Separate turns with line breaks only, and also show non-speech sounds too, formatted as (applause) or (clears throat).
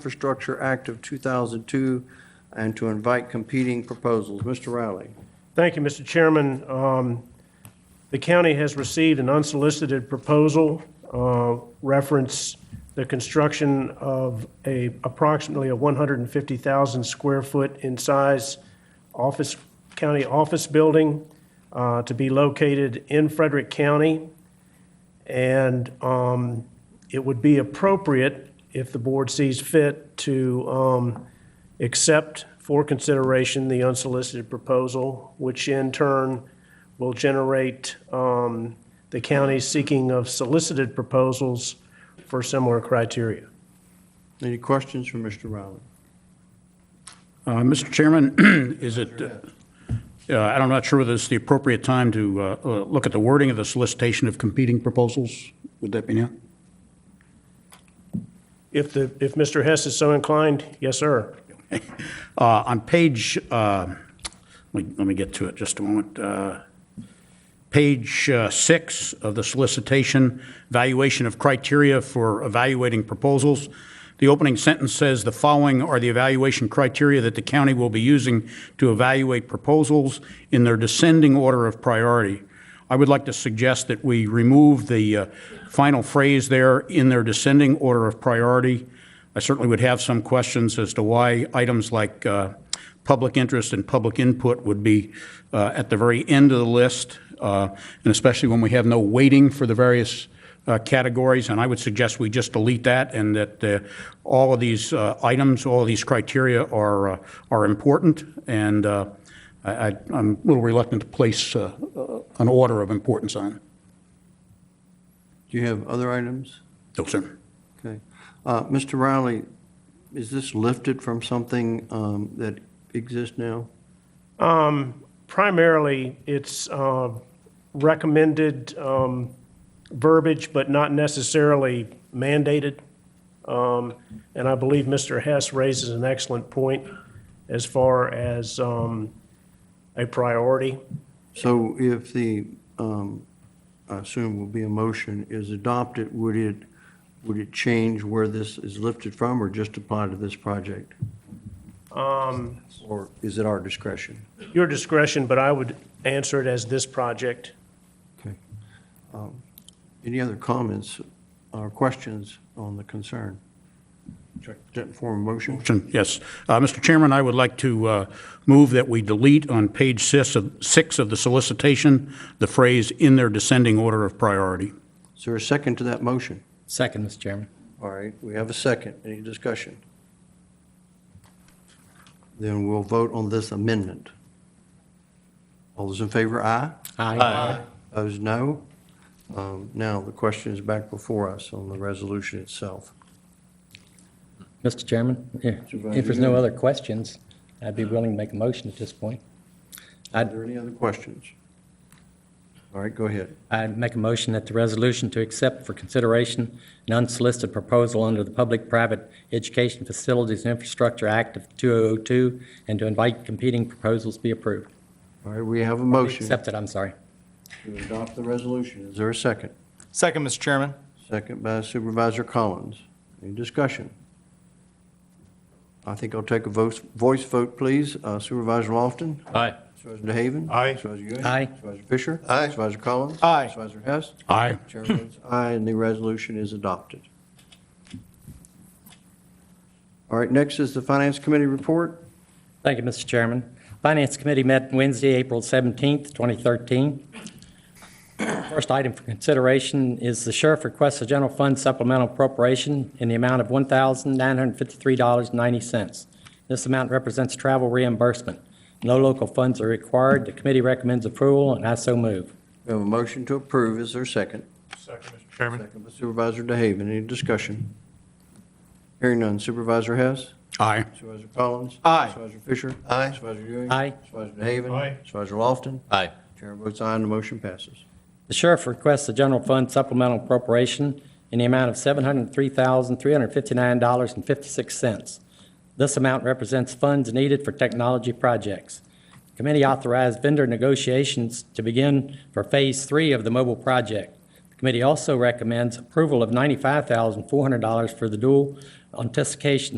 Infrastructure Act of 2002 and to invite competing proposals. Mr. Riley.
Thank you, Mr. Chairman. Um, The county has received an unsolicited proposal uh, reference the construction of a, approximately a 150,000 square foot in size office, county office building uh, to be located in Frederick County. And um, it would be appropriate, if the board sees fit, to um, accept for consideration the unsolicited proposal, which in turn will generate um, the county seeking of solicited proposals for similar criteria.
Any questions for Mr. Riley?
Uh, Mr. Chairman, (clears throat) is it, uh, uh, I'm not sure whether it's the appropriate time to uh, uh, look at the wording of the solicitation of competing proposals. Would that be now?
If the, if Mr. Hess is so inclined, yes, sir.
Uh, On page, uh, let me let me get to it just a moment. Uh, Page uh, six of the solicitation, evaluation of criteria for evaluating proposals. The opening sentence says, "The following are the evaluation criteria that the county will be using to evaluate proposals in their descending order of priority." I would like to suggest that we remove the uh, final phrase there, "in their descending order of priority." I certainly would have some questions as to why items like uh, public interest and public input would be uh, at the very end of the list, uh, and especially when we have no weighting for the various uh, categories. And I would suggest we just delete that, and that uh, all of these uh, items, all of these criteria are, uh, are important, and uh, I, I- I'm a little reluctant to place uh, uh, an order of importance on. it.
Do you have other items?
No, sir.
Okay. Uh, Mr. Riley, is this lifted from something um, that exists now?
Um, Primarily, it's uh, recommended um, verbiage, but not necessarily mandated. Um, And I believe Mr. Hess raises an excellent point as far as um, a priority.
So if the, um, I assume will be a motion, is adopted, would it, would it change where this is lifted from or just apply to this project? Or is it our discretion?
Your discretion, but I would answer it as this project.
Okay. Um, Any other comments or questions on the concern? Check that form of motion.
Motion, yes. Uh, Mr. Chairman, I would like to uh, move that we delete on page six of six of the solicitation, the phrase "in their descending order of priority."
Is there a second to that motion?
Second, Mr. Chairman.
All right, we have a second. Any discussion? Then we'll vote on this amendment. All those in favor, aye.
Aye.
Opposed, no. Um, Now, the question is back before us on the resolution itself.
Mr. Chairman, if if there's no other questions, I'd be willing to make a motion at this point.
Are there any other questions? All right, go ahead.
I'd make a motion that the resolution to accept for consideration an unsolicited proposal under the Public-Private Education Facilities and Infrastructure Act of 2002 and to invite competing proposals be approved.
All right, we have a motion
Accepted, I'm sorry.
to adopt the resolution. Is there a second?
Second, Mr. Chairman.
Second by Supervisor Collins. Any discussion? I think I'll take a voice, voice vote, please. Uh, Supervisor Lofton?
Aye.
Supervisor DeHaven?
Aye.
Supervisor Ewing?
Aye.
Supervisor Fisher?
Aye.
Supervisor Collins?
Aye.
Supervisor Hess?
Aye.
Chair votes aye, and the resolution is adopted. All right, next is the Finance Committee report.
Thank you, Mr. Chairman. Finance Committee met Wednesday, April 17th, 2013. First item for consideration is the sheriff requests a general fund supplemental appropriation in the amount of $1,953.90. This amount represents travel reimbursement. No local funds are required. The committee recommends approval, and I so move.
We have a motion to approve. Is there a second?
Second, Mr. Chairman.
Second by Supervisor DeHaven. Any discussion? Hearing none. Supervisor Hess?
Aye.
Supervisor Collins?
Aye.
Supervisor Fisher?
Aye.
Supervisor Ewing?
Aye.
Supervisor DeHaven?
Aye.
Supervisor Lofton?
Aye.
Chair votes aye, and the motion passes.
The sheriff requests a general fund supplemental appropriation in the amount of $703,359.56. This amount represents funds needed for technology projects. Committee authorized vendor negotiations to begin for Phase 3 of the mobile project. The Committee also recommends approval of $95,400 for the dual anticipation